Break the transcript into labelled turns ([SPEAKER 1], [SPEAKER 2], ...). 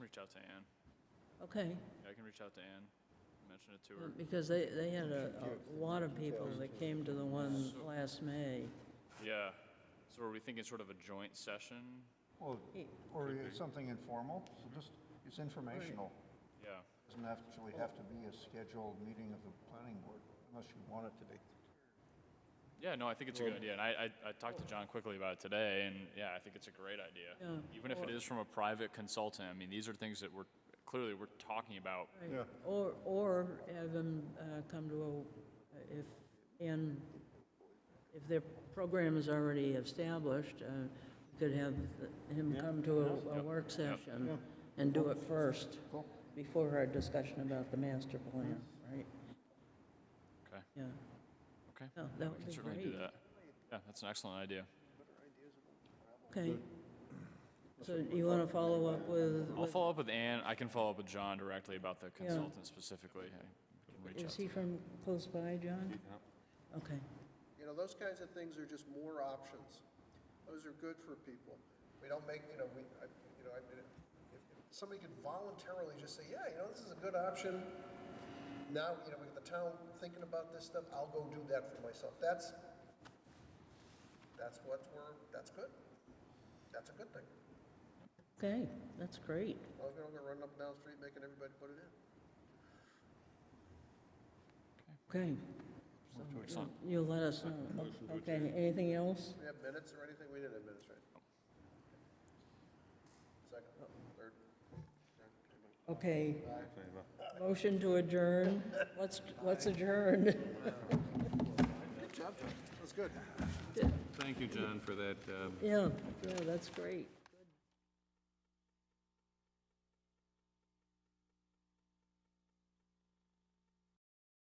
[SPEAKER 1] out to Ann.
[SPEAKER 2] Okay,
[SPEAKER 1] I can reach out to Ann, mention it to her.
[SPEAKER 2] because they, they had a, a lot of people that came to the one last May. Hmm.
[SPEAKER 1] Yeah. So are we thinking sort of a joint session?
[SPEAKER 3] Well, or it's something informal, so just, it's informational.
[SPEAKER 1] Yeah.
[SPEAKER 3] Doesn't actually have to be a scheduled meeting of the planning board, unless you want it to be.
[SPEAKER 1] Yeah, no, I think it's a good idea. And I, I, I talked to John quickly about it today, and yeah, I think it's a great idea.
[SPEAKER 2] Yeah.
[SPEAKER 1] Even if it is from a private consultant, I mean, these are things that we're, clearly, we're talking about.
[SPEAKER 2] Right. Or, or have them uh, come to a, if, and if their program is already established, uh, we could have him come to a- a work session and do it first, before our discussion about the master plan, right?
[SPEAKER 1] Okay,
[SPEAKER 2] Yeah,
[SPEAKER 1] okay.
[SPEAKER 2] No, that would
[SPEAKER 1] We can
[SPEAKER 2] be
[SPEAKER 1] certainly do
[SPEAKER 2] great.
[SPEAKER 1] that. Yeah, that's an excellent idea.
[SPEAKER 2] okay. So you want to follow up with,
[SPEAKER 1] I'll
[SPEAKER 2] with-
[SPEAKER 1] follow up with Ann. I can follow up with John directly about the consultant specifically. I can reach out
[SPEAKER 2] is
[SPEAKER 1] to
[SPEAKER 2] he from close by, John? Okay,
[SPEAKER 4] You know, those kinds of things are just more options. Those are good for people. We don't make, you know, we, I, you know, I mean, if if somebody could voluntarily just say, yeah, you know, this is a good option. Now, you know, we got the town thinking about this stuff, I'll go do that for myself. That's, that's what we're, that's good. That's a good thing.
[SPEAKER 2] okay, that's great.
[SPEAKER 4] As long as we don't go running up and down the street making everybody put it in.
[SPEAKER 2] Okay. So you'll- You'll let us know. Okay, anything else?
[SPEAKER 4] We have minutes or anything? We didn't have minutes, right? Second, third?
[SPEAKER 2] Okay. Motion to adjourn. Let's, let's adjourn.
[SPEAKER 4] Good job, John. That's good.
[SPEAKER 5] Thank you, John, for that um,
[SPEAKER 2] Yeah, yeah, that's great.